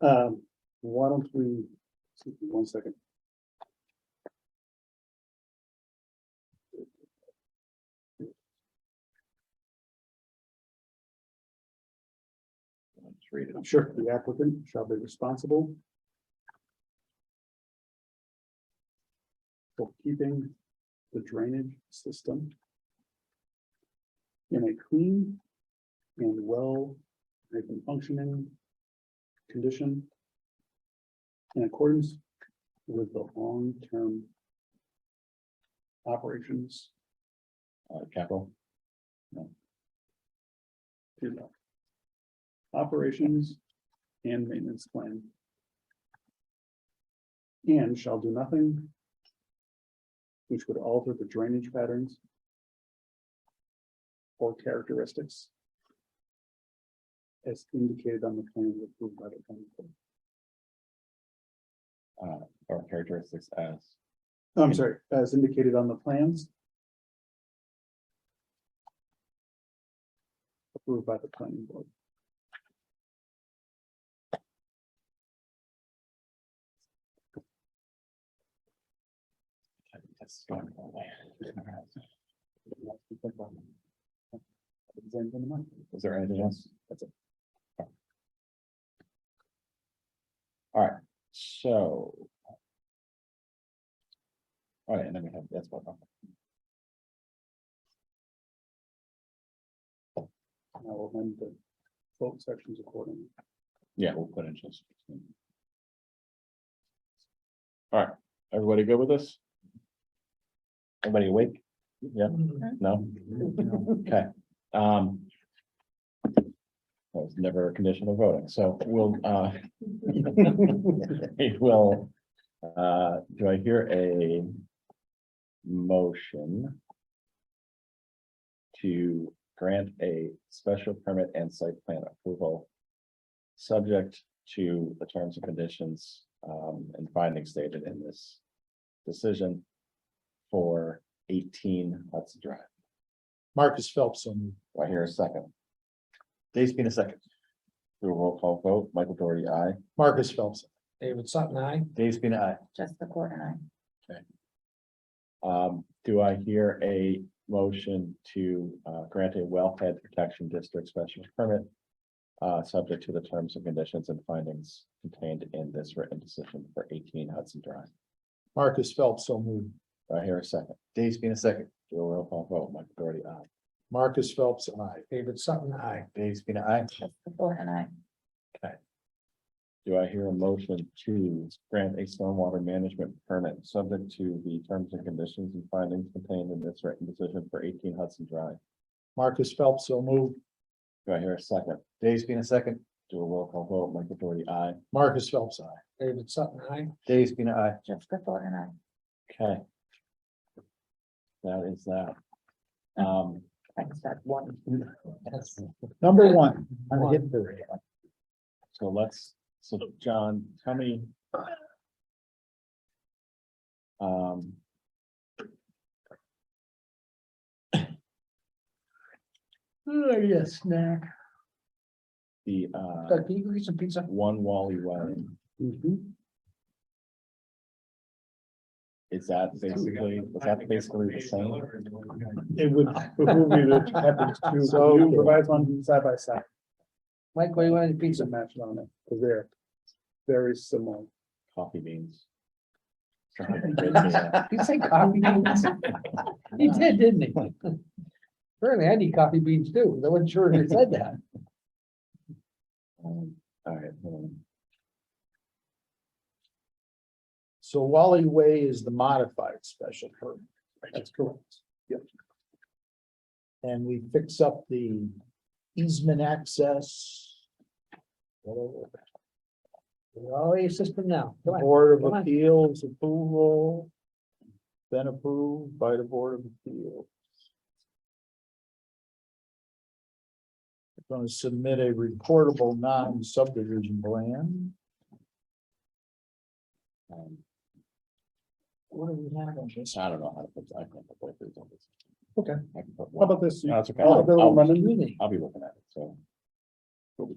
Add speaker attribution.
Speaker 1: Um, why don't we, excuse me one second.
Speaker 2: Let's read it.
Speaker 1: Sure, the applicant shall be responsible. For keeping the drainage system. In a clean and well, they've been functioning condition. In accordance with the long-term. Operations,
Speaker 2: Uh, capital,
Speaker 1: you know. Operations and maintenance plan. And shall do nothing. Which would alter the drainage patterns. Or characteristics. As indicated on the plan approved by the planning board.
Speaker 2: uh, or characteristics as,
Speaker 1: Oh, I'm sorry, as indicated on the plans. Approved by the planning board.
Speaker 2: that's going away. Is there anything else? That's it. All right, so. All right, and then we have, that's what.
Speaker 1: And I will amend the vote sections accordingly.
Speaker 2: Yeah, we'll put in just. All right, everybody good with this? Everybody awake? Yeah, no? Okay, um. That was never a condition of voting, so we'll, uh. It will, uh, do I hear a motion? To grant a special permit and site plan approval subject to the terms and conditions um and findings stated in this decision for eighteen Hudson Drive.
Speaker 3: Marcus Phelps on
Speaker 2: Do I hear a second? Dave's been a second. Do a roll call vote. Michael Doherty, aye.
Speaker 3: Marcus Phelps.
Speaker 4: David Sutton, I.
Speaker 2: Dave's been aye.
Speaker 5: Just the court and I.
Speaker 2: Um, do I hear a motion to uh grant a wellhead protection district special permit? Uh, subject to the terms and conditions and findings contained in this written decision for eighteen Hudson Drive.
Speaker 3: Marcus Phelps so moved.
Speaker 2: Do I hear a second? Dave's been a second. Do a roll call vote, Michael Doherty, aye.
Speaker 3: Marcus Phelps and I.
Speaker 4: David Sutton, I.
Speaker 2: Dave's been aye.
Speaker 5: Just the court and I.
Speaker 2: Do I hear a motion to grant a stormwater management permit subject to the terms and conditions and findings contained in this written decision for eighteen Hudson Drive?
Speaker 3: Marcus Phelps so moved.
Speaker 2: Do I hear a second? Dave's been a second. Do a roll call vote, Michael Doherty, aye.
Speaker 3: Marcus Phelps I.
Speaker 4: David Sutton, I.
Speaker 2: Dave's been aye.
Speaker 5: Just the court and I.
Speaker 2: Okay. That is that. Um,
Speaker 5: Thanks, that's one.
Speaker 3: Number one. I'm
Speaker 4: One.
Speaker 3: hitting the radio.
Speaker 2: so let's, so John, tell me. Um.
Speaker 4: Oh, yes, snack.
Speaker 2: the uh,
Speaker 4: Doug, can you go get some pizza?
Speaker 2: one Wally Way,
Speaker 1: Mm-hmm.
Speaker 2: is that basically, was that basically the same?
Speaker 1: It would behoove you to have these two,
Speaker 3: So-
Speaker 1: you provide one side by side,
Speaker 4: Mike, what do you want to
Speaker 1: it's
Speaker 4: pizza?
Speaker 1: a match on it, because they're very similar.
Speaker 2: Coffee beans.
Speaker 4: He said coffee beans. He did, didn't he? Apparently I need coffee beans too. I wasn't sure if he said that.
Speaker 2: Um, All right, hold on.
Speaker 3: So Wally Way is the modified special permit. That's correct. Yep. And we fix up the easement access. whatever.
Speaker 4: Oh, your system now. Come on.
Speaker 3: Board
Speaker 4: come
Speaker 3: of Appeals approval. Been approved by the Board of Appeals. Going to submit a reportable non-subdivision plan.
Speaker 2: Um,
Speaker 4: What do we have on this?
Speaker 2: I don't know how to put, I can't put these on this.
Speaker 1: Okay.
Speaker 2: I can put
Speaker 1: How
Speaker 2: one-
Speaker 1: about this?
Speaker 3: Oh,
Speaker 2: No, it's okay.
Speaker 1: All of them
Speaker 2: I'll-
Speaker 1: are
Speaker 2: I'll
Speaker 1: running.
Speaker 2: I'll be looking at it, so.